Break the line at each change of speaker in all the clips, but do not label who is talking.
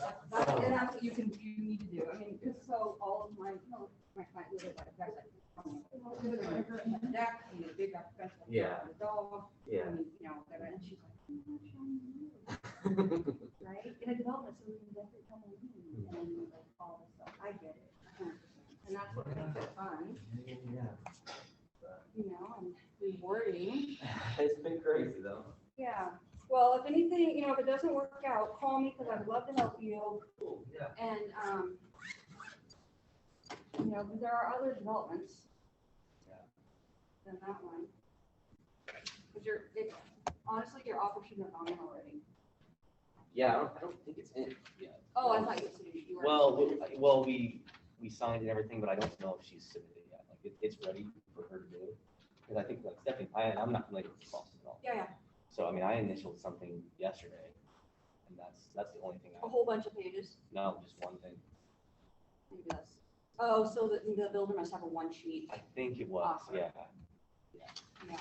That's, and that's what you can, you need to do. I mean, just so all of my, you know, my client live like that's like. um, live in a Deck, you know, big up fence. like,
Yeah.
the Dog,
Yeah.
I mean, you know, whatever, and she's like. "I'm not sure I know," Right, in a development, so we can definitely come in and like all this stuff. I get it. 100%. And that's what makes it fun,
Yeah.
you know, and rewarding.
It's been crazy though.
Yeah, well, if anything, you know, if it doesn't work out, call me because I'd love to help you.
Yeah.
And, um, you know, but there are other developments
Yeah.
than that one. Because you're, it, honestly, your offer shouldn't have gone in already.
Yeah, I don't, I don't think it's in yet.
Oh, I thought you said you were.
Well, we- well, we, we signed and everything, but I don't know if she's submitted yet. Like, it, it's ready for her to do. Because I think like Stephanie, I, I'm not familiar with Boston at all.
Yeah, yeah,
So I mean, I initialed something yesterday and that's, that's the only thing
a
I,
whole bunch of pages,
no, just one thing.
maybe that's, oh, so the, the builder must have a one sheet,
I think it was,
Offer.
yeah.
yeah.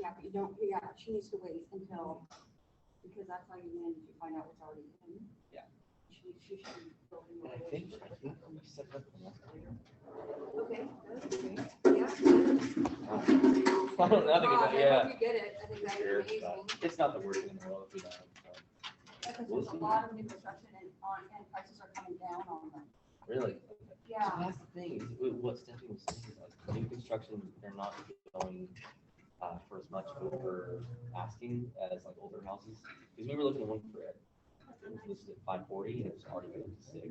Yeah, but you don't, yeah, she needs to wait until, because that's how you manage to find out what's already in.
Yeah.
She, she should be building.
And
a
I think,
relationship.
I think we set it up for next year.
Okay, that's great, yeah.
I don't know, I think
Wow,
it's- yeah.
hope You get it, I think that'd
Sure,
be amazing.
but It's not the worst in the world if we don't. so.
Because
We'll
there's a
see.
lot of new construction and on, and prices are coming down on them.
Really? So
Yeah,
That's the thing, is what- what Stephanie was saying, is like new construction, they're not going uh, for as much over asking as like older houses. Because we were looking at one for it, it was listed at five forty and it was already going up to six.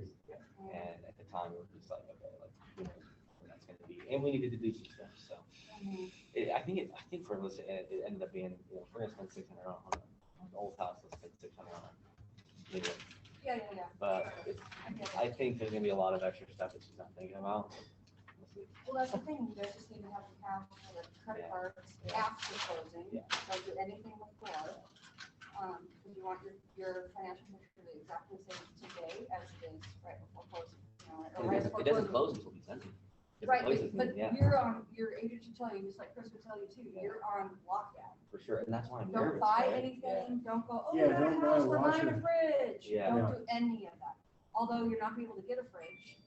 and-
And at the time, we were just like, okay, like, you know, where that's gonna be, and we needed to do some stuff, so.
and
It, I think it, I think for us, it, it ended up being, you know, we're gonna spend six hundred on on the old house, let's spend six hundred on. it. You know,
Yeah, yeah, yeah.
But it's,
I get it.
I think there's gonna be a lot of extra stuff that she's not thinking about. We'll see.
Well, that's the thing, you guys just need to have the cash for the credit
Yeah.
cards
Yeah.
after closing,
Yeah.
don't do anything before. Um, because you want your, your financial picture to be exactly the same today as it is right before closing. you know, or
It
right
doesn't-
before
it doesn't
closing.
close until December. If it
Right,
closes,
but-
then
but
yeah,
you're on, your agent should tell you, just like Chris would tell you too,
Yeah.
you're on lockdown.
for sure, and that's why I'm nervous.
Don't buy
right? Yeah.
anything, don't go, oh,
Yeah,
we got a
don't buy
house,
a
we're buying a
washer.
fridge.
Yeah.
Don't
Yeah.
do any of that. Although you're not gonna be able to get a fridge,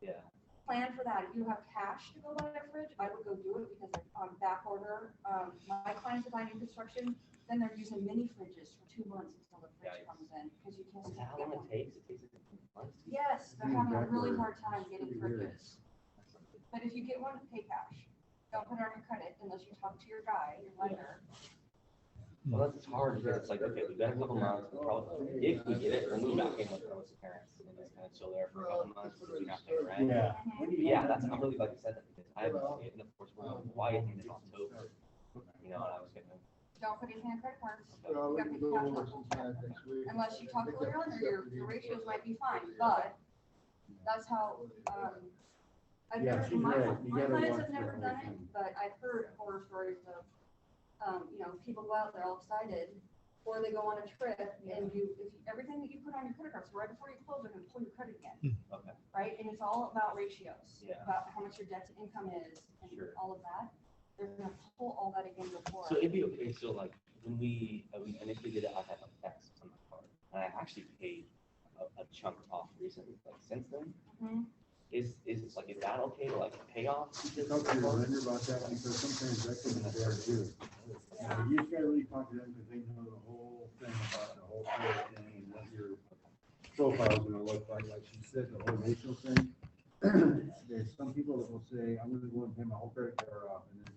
Yeah,
plan for that. If you have cash to go buy a fridge, I would go do it because like on back order, um, my clients are buying new construction, then they're using mini fridges for two months until the fridge
Yikes.
comes in, because you can't
is
just
that how
get
long
one.
it takes? It takes like months. to-
Yes, they're
Hmm,
having a
back
really
order.
hard time getting
Pretty weird.
fridges. But if you get one, pay cash. Don't put it on your credit unless you talk to your guy, your lender.
Well, that's it's hard because it's like, okay, we've got a couple months, we'll probably, if we get it, we'll move back in with Carlos' parents and then it's kind of chill there for a couple months, so we have to rent.
Yeah.
Mm-hmm.
Yeah, that's, I'm really glad you said that because I haven't seen it and of course we're on quiet in October, you know, and I was gonna.
Don't put anything on credit cards
Unless
unless you talk to your lender, your, your ratios might be fine, but that's how, um, I've
Yeah,
never,
she's
my,
right. You
my
gotta
clients
watch
have never
that
done
whole
it,
thing.
but I've heard horror stories of, um, you know, people go out, they're all excited, or they go on a trip and you, if, you- everything that you put on your credit cards, right before you close, they're gonna pull your credit again.
Okay.
right? And it's all about ratios.
Hmm. Yeah.
About how much your debt to income is and
Sure.
all of that. They're gonna pull all that again before.
So it'd be okay, so like, when we, uh, we initially did it, I had like X on my card, and I actually paid a, a chunk off recently, like since then.
Mhm.
Is, is it like, is that okay to like pay off? this
Talk to your
card?
lender about that because sometimes that can be bad too.
Yeah.
You just gotta really talk to them because they know the whole thing about the whole credit thing and what your profile's gonna look like. Like she said, the whole racial thing. There's some people that will say, I'm gonna go and pay my whole credit card off and then